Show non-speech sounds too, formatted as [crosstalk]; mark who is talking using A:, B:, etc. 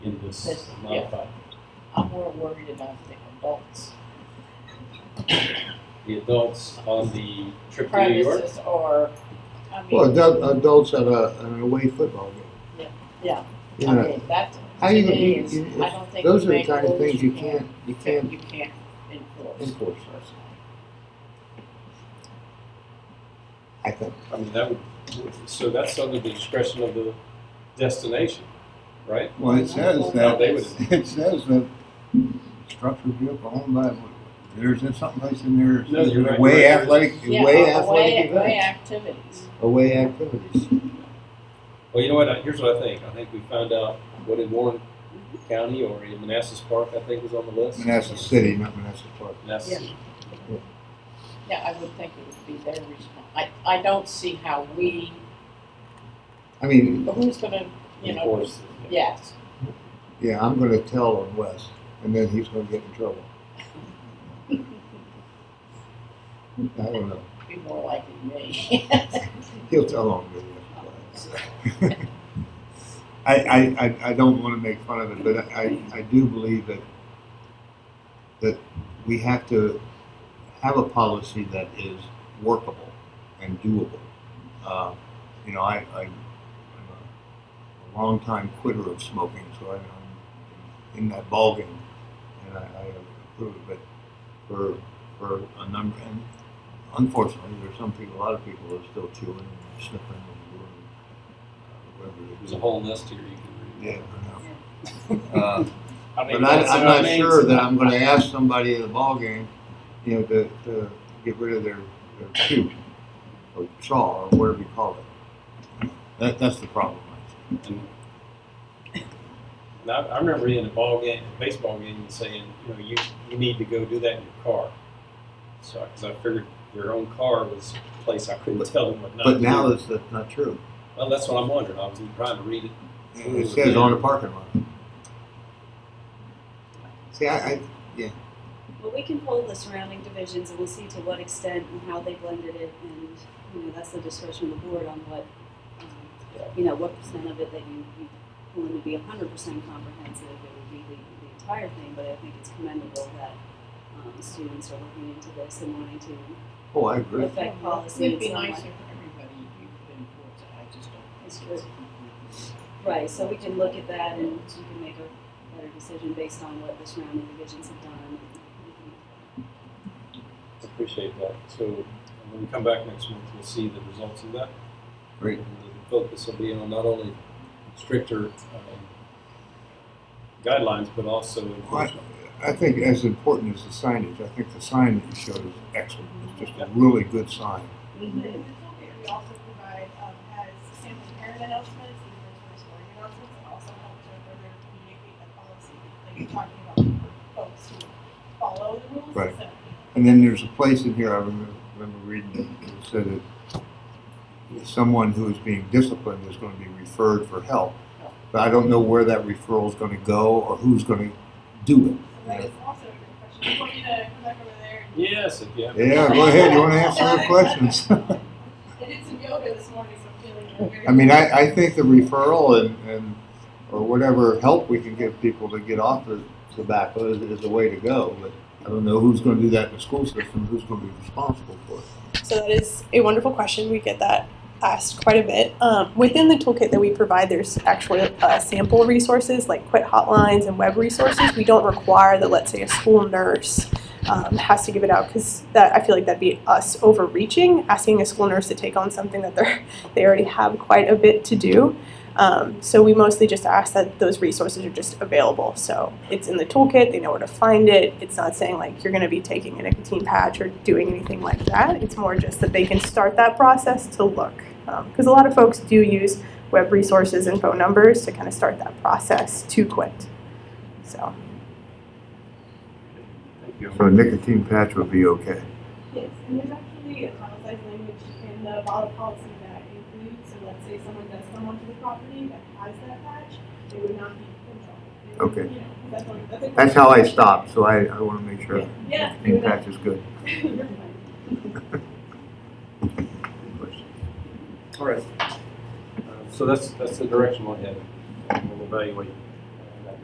A: is
B: That's- yeah.
A: modified.
B: I'm more worried about the adults.
A: The adults on the trip to New York,
B: Premises or, I
C: Well,
B: mean,
C: adult- adults at a, at an away football game.
B: yeah,
C: You
B: I
C: know,
B: mean, that,
C: How
B: to
C: you gonna-
B: me
C: you-
B: is,
C: you-
B: I don't think.
C: those
B: we
C: are the
B: make
C: kind of
B: rules
C: things you can't, you
B: that
C: can't
B: You can't enforce.
C: enforce, I think.
A: I mean, that would, so that's under the discretion of the destination, right?
D: Well, it says
A: Now,
D: that,
A: they would,
D: it says that structure vehicle owned by, there's someplace in there,
A: No, you're right.
D: way athletic,
B: Yeah,
D: way
B: uh,
D: athletic
B: away- away
D: events.
B: activities.
C: Away activities.
A: well, you know what, I- here's what I think, I think we found out what in Warren County or in Manassas Park, I think was on the list.
D: Manassas City, not Manassas Park.
A: Manassas,
B: Yeah, I would think it would be their response. I, I don't see how we,
C: I mean,
B: who's gonna, you
A: of
B: know,
A: course.
B: yes.
C: yeah, I'm gonna tell on Wes, and then he's gonna get in trouble. [laughs] I don't know.
B: Be more likely
C: [laughs]
B: me.
C: He'll tell on me. I, I, I, I don't want to make fun of it, but I, I do believe that that we have to have a policy that is workable and doable. Uh, you know, I, I, I'm a, a longtime quitter of smoking, so I, I'm in that ballgame, and I, I approve of it for for a number. And unfortunately, there's some people, a lot of people, are still chewing and sniffing and doing uh, whatever they do.
A: There's a whole list here you can read.
C: Yeah, I know. [laughs] Uh,
A: mean,
C: But I,
A: that's
C: I'm
A: what I
C: not
A: mean.
C: sure that I'm gonna ask somebody at the ballgame, you know, to, to get rid of their, their shoe or saw or whatever you call it. That, that's the problem. I think.
A: And I, I remember in a ball game, a baseball game, and saying, you know, you, you need to go do that in your car. So, because I figured their own car was a place I couldn't tell them what not to
C: But now
A: do.
C: that's, that's not true.
A: Well, that's what I'm wondering. I was trying to read it.
C: It says on the parking lot. See, I, I,
E: Well, we can poll the surrounding divisions and we'll see to what extent and how they blended it and, you know, that's the discretion of the board on what, um, you know, what percent of it that you, you want to be hundred percent comprehensive, it would be the, the entire thing, but I think it's commendable that, um, students are looking into this and wanting to
C: oh, I agree.
E: affect policy
B: It'd
E: in
B: be
E: some
B: nice if
E: way.
B: everybody, you could enforce it, I just don't.
E: It's true. Right, so we can look at that and you can make a better decision based on what the surrounding divisions have done.
A: Appreciate that. So when we come back next month, we'll see the results of that.
C: Great.
A: And the focus will be on not only stricter um, guidelines, but also enforcement.
C: I think as important as the signage, I think the sign that you showed is excellent. It's just a really good sign.
B: Mm-hmm.
E: Mhm.
F: We also provide, um, has sample parent announcements, and mandatory scoring announcements, and also help to further communicate the policy, like you're talking about for folks who follow the rules.
C: Right.
F: instead of
C: And then there's a place in here, I remember, remember reading, it it said that someone who is being disciplined is gonna be referred for help. But I don't know where that referral is gonna go or who's gonna do
F: And that is also a good question. You want me to come back over there? and-
A: Yes, if you have.
C: it. Yeah, go ahead, you wanna answer those questions? [laughs]
F: I did some yoga this morning, so I'm feeling very.
C: I mean, I, I think the referral and, and, or whatever help we can give people to get off the tobacco is, is the way to go. But I don't know who's gonna do that in the school system, who's gonna be responsible for it.
G: So that is a wonderful question. We get that asked quite a bit. Um, within the toolkit that we provide, there's actually uh, sample resources like quit hotlines and web resources. We don't require that, let's say, a school nurse um, has to give it out because that I feel like that'd be us overreaching, asking a school nurse to take on something that they they already have quite a bit to do. Um, so we mostly just ask that those resources are just available. So it's in the toolkit; they know where to find it. It's not saying like you're going to be taking a nicotine patch or doing anything like that. It's more just that they can start that process to look, because a lot of folks do use web resources and phone numbers to kind of start that process to quit. So
A: Thank you.
C: So a nicotine patch would be okay.
F: Yes, and there's actually a italicized language in the bottle policy that includes, so let's say someone does come onto the property that has that patch, they would not be in trouble. They would,
C: Okay.
F: you know, that's what- that's a-
C: That's how I stop, so I, I wanna make sure
F: Yeah.
C: nicotine patch is good.
F: [laughs] You're fine.
A: All right. Uh, So that's, that's the direction we're heading. We'll evaluate